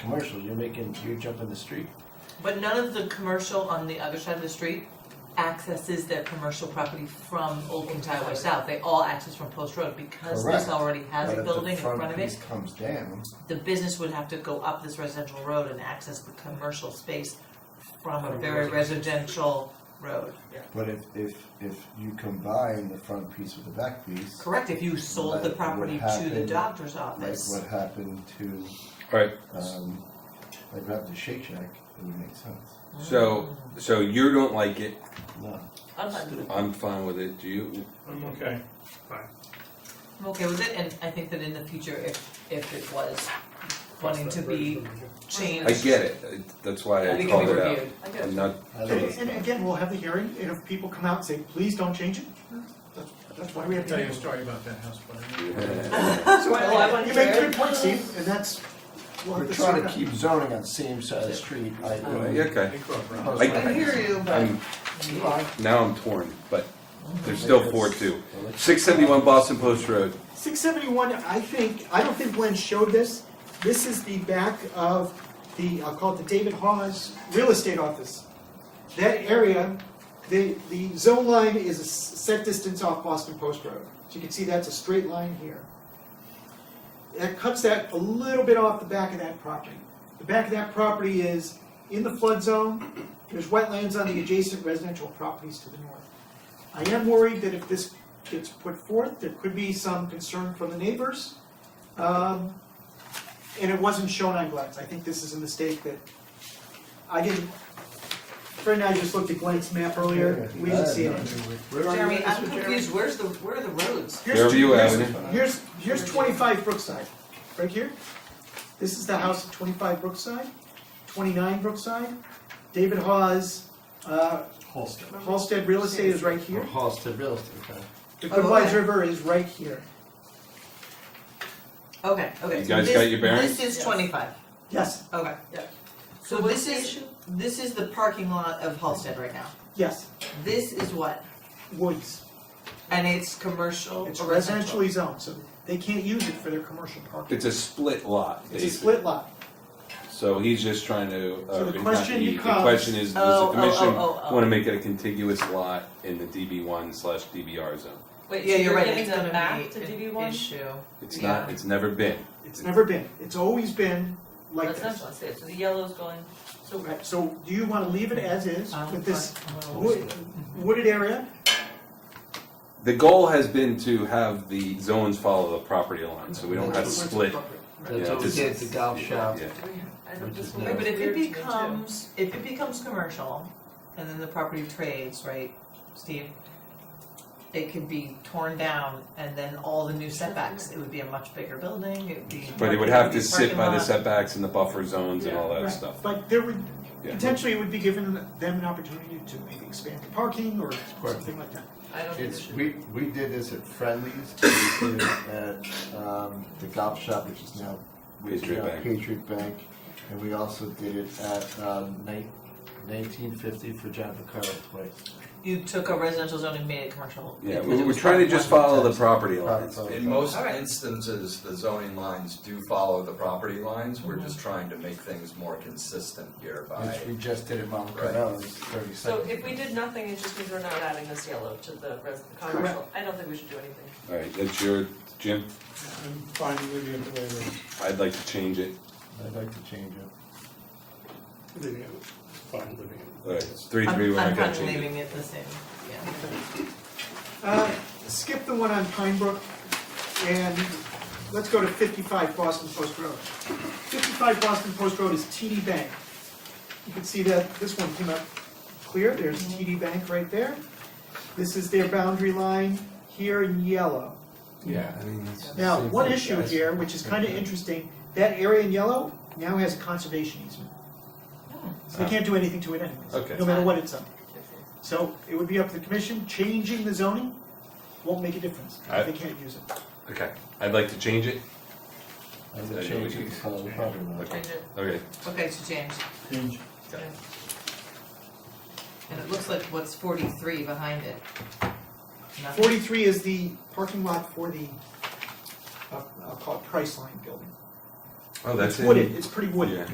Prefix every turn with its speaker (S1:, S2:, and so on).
S1: commercial, you're making, you're jumping the street.
S2: But none of the commercial on the other side of the street accesses their commercial property from Old Kings Highway South. They all access from Post Road because this
S1: Correct.
S2: already has a building in front of
S1: But if the
S2: it.
S1: front piece comes down,
S2: The business would have to go up this residential road and access the commercial space from a very residential road.
S1: but if, if, if you combine the front piece with the back piece,
S2: Correct, if you sold
S1: Like
S2: the
S1: what
S2: property to the
S1: happened-
S2: doctor's
S1: like
S2: office.
S1: what happened to,
S3: Alright,
S1: um, like what happened to Shake Shack, it would make sense.
S3: so, so you don't like it,
S1: No,
S2: I'm fine with it.
S3: I'm fine with it, do you?
S4: I'm okay.
S2: I'm okay with it, and I think that in the future, if, if it was wanting to be changed,
S3: I get it, I- that's why
S2: then
S3: I
S2: it can
S3: called
S2: be
S3: it out.
S2: reviewed.
S3: I'm not,
S1: I don't
S4: Okay,
S1: know.
S4: and again, we'll have the hearing, and if people come out and say, please don't change it, that's, that's why we have to. Tell you a story about that house, but. So
S2: Well, I wanna
S4: You make
S2: hear
S4: good points, Steve, and that's. we'll have
S1: We're trying to
S4: sort
S1: keep zoning on same side of the street, I,
S3: yeah, okay,
S4: out.
S1: Like-
S2: I hear you, but.
S3: I'm, now I'm torn, but there's
S1: Mhm.
S3: still four two. Six seventy-one Boston Post Road,
S4: Six seventy-one, I think, I don't think Glenn showed this, this is the back of the, I'll call it the David Hawes Real Estate Office. That area, the, the zone line is a s- set distance off Boston Post Road, so you can see that's a straight line here. That cuts that a little bit off the back of that property. The back of that property is in the flood zone, there's wetlands on the adjacent residential properties to the north. I am worried that if this gets put forth, there could be some concern from the neighbors. Um, And it wasn't shown on Glenn's, I think this is a mistake that, I didn't, Fred and I just looked at Glenn's map earlier, we didn't see it.
S2: Jeremy, I'm confused, where's the, where are the roads?
S4: Here's-
S3: Fairview
S4: here's-
S3: Avenue.
S4: Here's, here's twenty-five Brookside, right here. This is the house at twenty-five Brookside, twenty-nine Brookside. David Hawes, uh,
S1: Holster.
S4: Halsted Real Estate is right here.
S1: Halsted Real Estate, okay.
S4: The
S2: Oh, okay.
S4: Goodwise River is right here.
S2: Okay, okay.
S3: You
S2: so
S3: guys
S2: this-
S3: got your bearings?
S2: This is
S5: Yes.
S2: twenty-five,
S4: Yes,
S2: okay.
S5: Yeah.
S2: So this is, this is the parking lot of Halsted right now.
S4: yes,
S2: This is what?
S4: Woods.
S2: And it's commercial
S4: It's
S2: or residential?
S4: residentially zoned, so they can't use it for their commercial parking.
S3: it's a split lot,
S4: It's a
S3: basically.
S4: split lot.
S3: So he's just trying to, uh,
S4: So the
S3: not
S4: question
S3: he-
S4: becomes-
S3: The question is, does
S2: Oh,
S3: the
S2: oh,
S3: commission
S2: oh, oh, oh.
S3: wanna make it a contiguous lot in the DB one slash DBR zone?
S5: Wait,
S2: Yeah,
S5: so
S2: you're
S5: you're
S2: right, it's
S5: giving the
S2: gonna
S5: map to
S2: be
S5: DB
S2: an
S5: one?
S2: issue.
S3: It's not,
S2: Yeah.
S3: it's never been.
S4: It's never been, it's always been like
S5: That's
S4: this.
S5: not what it is. so the yellow's going, so,
S4: Right, so do you wanna leave it as is
S2: Um,
S4: with this
S2: but-
S4: wood- wooded area?
S3: The goal has been to have the zones follow the property line, so we don't have to
S4: Where's the
S3: split.
S4: property?
S3: Yeah,
S6: That's what we
S3: just-
S6: did at the golf shop.
S3: Yeah.
S5: do we have, I
S6: Which
S5: don't,
S6: is
S5: this
S6: nice.
S5: one
S2: Right, but if it
S5: weird to me too.
S2: becomes, if it becomes commercial, and then the property trades, right, Steve? It could be torn down and then all the new setbacks, it would be a much bigger building, it would be.
S3: But it would
S2: would
S3: have
S2: be
S3: to sit
S2: parking
S3: by the
S2: lot.
S3: setbacks and the buffer zones and all that
S4: Right,
S3: stuff.
S4: But there would,
S3: Yeah.
S4: potentially it would be given them an opportunity to maybe expand the parking or something like that.
S5: I don't think it
S1: It's,
S5: should.
S1: we, we did this at Friendly's, we did it at, um, the golf shop, which is now. which is
S3: Patriot
S1: now
S3: Bank.
S1: Patriot Bank, and we also did it at, um, nineteen fifty for John Picaro twice.
S2: You took a residential zone and made it commercial.
S3: Yeah,
S2: because
S3: we-
S2: it
S3: we're
S2: was
S3: trying to
S2: part
S3: just
S2: of one-
S3: follow the property lines.
S1: Property.
S7: In most
S2: All right.
S7: instances, the zoning lines do follow the property lines,
S2: Mm-hmm.
S7: we're just trying to make things more consistent here by.
S1: Which we just did at Mount
S7: Right.
S1: Carmel, it's thirty
S5: So
S1: seconds.
S5: if we did nothing, it just means we're not adding this yellow to the res, the commercial, I don't think we should do anything.
S3: All right, that's your, Jim,
S8: I'm fine with you the way it is.
S3: I'd like to change it.
S1: I'd like to change it.
S8: Leaving it, fine living it.
S3: All right, it's three,
S2: I'm-
S3: three, one,
S2: I'm
S3: I got
S2: kind of
S3: change it.
S2: leaving it the same, yeah.
S4: Uh, skip the one on Pine Brook and let's go to fifty-five Boston Post Road. Fifty-five Boston Post Road is TD Bank. You can see that this one came up clear, there's TD Bank right there. This is their boundary line here in yellow.
S6: Yeah, I mean,
S4: Now, one issue here, which is kind of interesting, that area in yellow now has a conservation easement. So they can't do anything to it anyways,
S3: Ah. Okay.
S4: no matter what it's on. So it would be up to the commission, changing the zoning won't make a difference,
S3: I-
S4: if they can't use it.
S3: Okay, I'd like to change it.
S1: I
S3: Yeah,
S1: would
S3: you
S1: change
S3: would
S1: it,
S3: use-
S1: so probably not.
S5: Change it.
S3: Okay,
S2: Okay, so James,
S8: Change.
S2: and it looks like what's forty-three behind it. Nothing.
S4: Forty-three is the parking lot for the, uh, I'll I'll call it Priceline Building.
S3: oh, that's
S4: It's
S3: in.
S4: wooded, it's pretty wooded.
S3: Yeah.